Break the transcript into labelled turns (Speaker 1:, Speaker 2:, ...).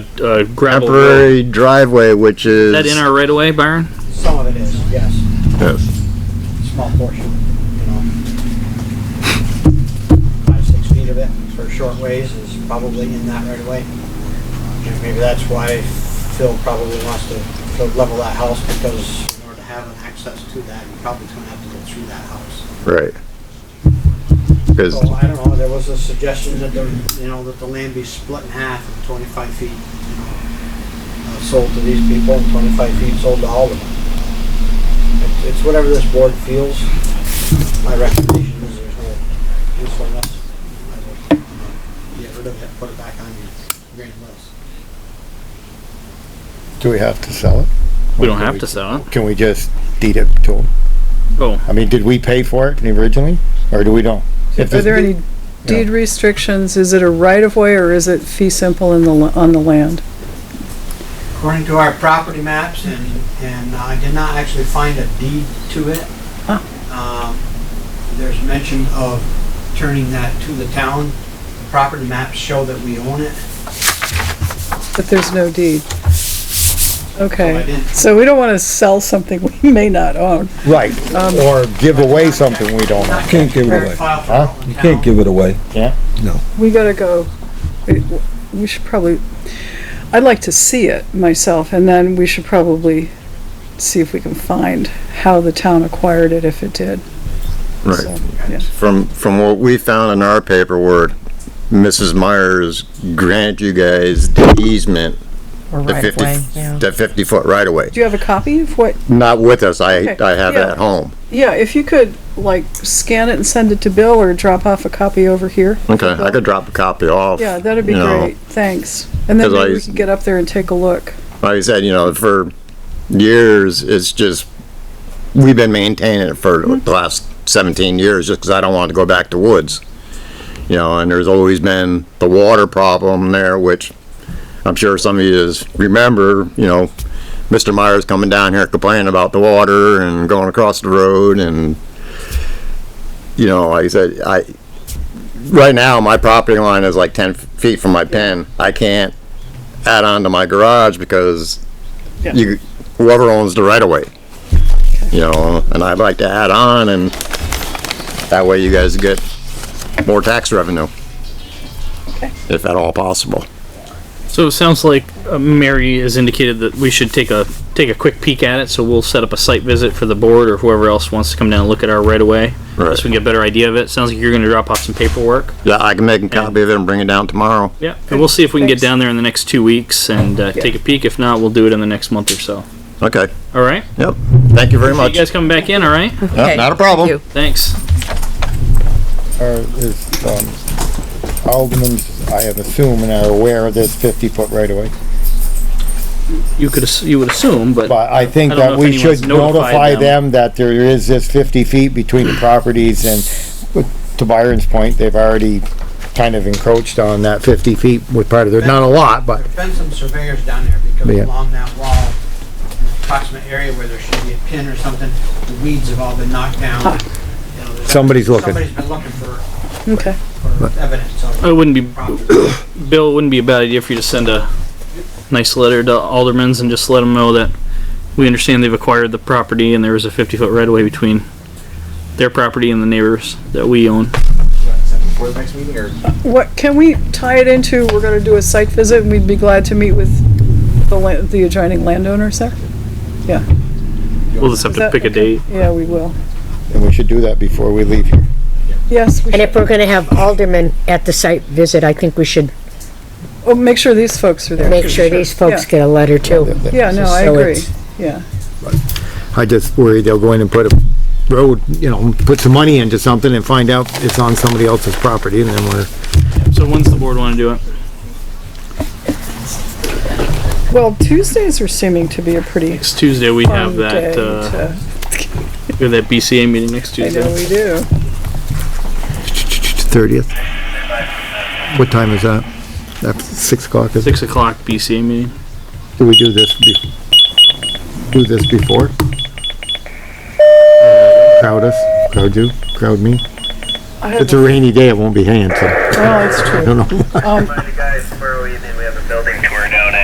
Speaker 1: uh, gravel road.
Speaker 2: temporary driveway, which
Speaker 1: Is
Speaker 2: is.
Speaker 1: that in our right of way, Byron?
Speaker 3: Some of it is, yes,
Speaker 2: Yes.
Speaker 3: small portion, you know. Five, six feet of it for short ways is probably in that right away. And maybe that's why Phil probably wants to, to level that house because in order to have an access to that, you probably gonna have to go through that house.
Speaker 2: Right. Because,
Speaker 3: So Oh, I don't know, there was a suggestion that the, you know, that the land be split in half and twenty-five feet, you know, uh, sold to these people and twenty-five feet sold to all of them. It's- It's whatever this board feels. My recommendation is there's no usefulness. I would, uh, Get rid of it, put it back on your grand list.
Speaker 4: Do we have to sell it?
Speaker 1: We don't have to sell it.
Speaker 4: Can we just deed it to them?
Speaker 1: Oh,
Speaker 4: I mean, did we pay for it originally, or do we don't? If
Speaker 5: Are
Speaker 4: this-
Speaker 5: there any deed restrictions? Is it a right-of-way or is it fee simple in the, la- on the land?
Speaker 3: According to our property maps, and, and I did not actually find a deed to it.
Speaker 5: Huh.
Speaker 3: Um, There's mention of turning that to the town. The Property maps show that we own it.
Speaker 5: But there's no deed.
Speaker 3: I
Speaker 5: Okay,
Speaker 3: didn't-
Speaker 5: so we don't want to sell something we may not own.
Speaker 4: Right,
Speaker 5: Um,
Speaker 4: or give away something we don't
Speaker 3: Not
Speaker 4: have.
Speaker 6: Can't give it
Speaker 3: prepared
Speaker 6: away.
Speaker 3: file for
Speaker 4: Huh?
Speaker 3: Rutland
Speaker 6: You can't
Speaker 3: Town.
Speaker 6: give it away.
Speaker 5: We gotta go, we- we should probably, I'd like to see it myself and then we should probably see if we can find how the town acquired it if it did.
Speaker 2: right,
Speaker 5: So, yeah.
Speaker 2: from, from what we found in our paperwork, Mrs. Myers grant you guys the easement,
Speaker 7: Or
Speaker 2: the
Speaker 7: right
Speaker 2: fifty,
Speaker 7: away, yeah.
Speaker 2: the fifty foot right of way.
Speaker 5: Do you have a copy of what,
Speaker 2: Not with us, I,
Speaker 5: Okay,
Speaker 2: I have it
Speaker 5: yeah.
Speaker 2: at home.
Speaker 5: yeah, if you could like scan it and send it to Bill or drop off a copy over here?
Speaker 2: Okay, I could drop a copy off.
Speaker 5: Yeah, that'd be
Speaker 2: you know.
Speaker 5: great, thanks. And then
Speaker 2: 'Cause I
Speaker 5: maybe we
Speaker 2: used-
Speaker 5: can get up there and take a look.
Speaker 2: Like I said, you know, for years, it's just, we've been maintaining it for the last seventeen years, just 'cause I don't want to go back to woods. You know, and there's always been the water problem there, which I'm sure some of you remember, you know, Mr. Myers coming down here complaining about the water and going across the road and, you know, like I said, I, right now, my property line is like ten feet from my pen. I can't add on to my garage because
Speaker 5: Yeah.
Speaker 2: you, whoever owns the right of way. You know, and I'd like to add on and that way you guys get more tax revenue. If at all possible.
Speaker 1: so it sounds like uh, Mary has indicated that we should take a take a quick peek at it. So we'll set up a site visit for the board or whoever else wants to come down and look at our right of way.
Speaker 2: Right.
Speaker 1: So we can get a better idea of it. Sounds like you're going to drop off some paperwork.
Speaker 2: Yeah, I can make a copy of it and bring it down tomorrow.
Speaker 1: Yeah, and we'll see if we can
Speaker 5: Thanks.
Speaker 1: get down there in the next two weeks and uh, take a peek. If not, we'll do it in the next month or so.
Speaker 2: Okay,
Speaker 1: All right.
Speaker 2: yep. Thank you very
Speaker 1: So you
Speaker 2: much.
Speaker 1: guys coming back in? All right.
Speaker 2: Yep,
Speaker 7: Okay,
Speaker 2: Not a
Speaker 7: thank
Speaker 2: problem.
Speaker 7: you.
Speaker 1: Thanks.
Speaker 4: Or is, um, Alderman, I am assuming are aware of this fifty foot right away.
Speaker 1: You could ass- you would assume, but
Speaker 4: But I think
Speaker 1: I don't know
Speaker 4: that
Speaker 1: if
Speaker 4: we
Speaker 1: anyone's
Speaker 4: should
Speaker 1: notified
Speaker 4: notify
Speaker 1: them.
Speaker 4: them that there is this fifty feet between the properties and to Byron's point, they've already kind of encroached on that fifty feet with part of their, not a lot, but
Speaker 3: There's been some surveyors down there because
Speaker 4: Yeah.
Speaker 3: along that wall, in the approximate area where there should be a pin or something, the weeds have all been knocked down. You know, there's-
Speaker 4: Somebody's looking.
Speaker 3: Somebody's been looking for,
Speaker 5: Okay.
Speaker 3: for evidence of
Speaker 1: it
Speaker 3: the
Speaker 1: wouldn't be
Speaker 3: property.
Speaker 1: Bill, it wouldn't be a bad idea for you to send a nice letter to aldermans and just let them know that we understand they've acquired the property and there is a fifty foot right of way between their property and the neighbors that we own.
Speaker 5: What, can we tie it into, we're gonna do a site visit and we'd be glad to meet with the land, the adjoining landowners there?
Speaker 1: We'll just have
Speaker 5: Is
Speaker 1: to
Speaker 5: that-
Speaker 1: pick a
Speaker 5: okay.
Speaker 1: date.
Speaker 5: Yeah, we will.
Speaker 4: and we should do that before we leave here.
Speaker 5: Yes, we
Speaker 7: And if
Speaker 5: should.
Speaker 7: we're gonna have aldermen at the site visit, I think we should
Speaker 5: Oh, make sure these folks are there.
Speaker 7: make sure these folks get a letter too.
Speaker 5: Yeah, no, I
Speaker 7: So
Speaker 5: agree,
Speaker 7: it's-
Speaker 5: yeah.
Speaker 4: I just worry they'll go in and put a road, you know, put some money into something and find out it's on somebody else's property and then we're
Speaker 1: So when's the board wanna do it?
Speaker 5: Well, Tuesdays are seeming to be a pretty
Speaker 1: Next Tuesday, we have
Speaker 5: fun day
Speaker 1: that, uh,
Speaker 5: to,
Speaker 1: we have that BCA meeting next
Speaker 5: I know
Speaker 1: Tuesday.
Speaker 5: we do.
Speaker 4: thirtieth. What time is that? That's six o'clock, is it?
Speaker 1: Six o'clock BCA meeting.
Speaker 4: Do we do this be, do this before? Crowd us, crowd you, crowd me?
Speaker 5: I
Speaker 4: If it's
Speaker 5: have,
Speaker 4: a rainy day, it won't be hanging, so I
Speaker 5: well, it's true.
Speaker 4: don't know.
Speaker 5: Um,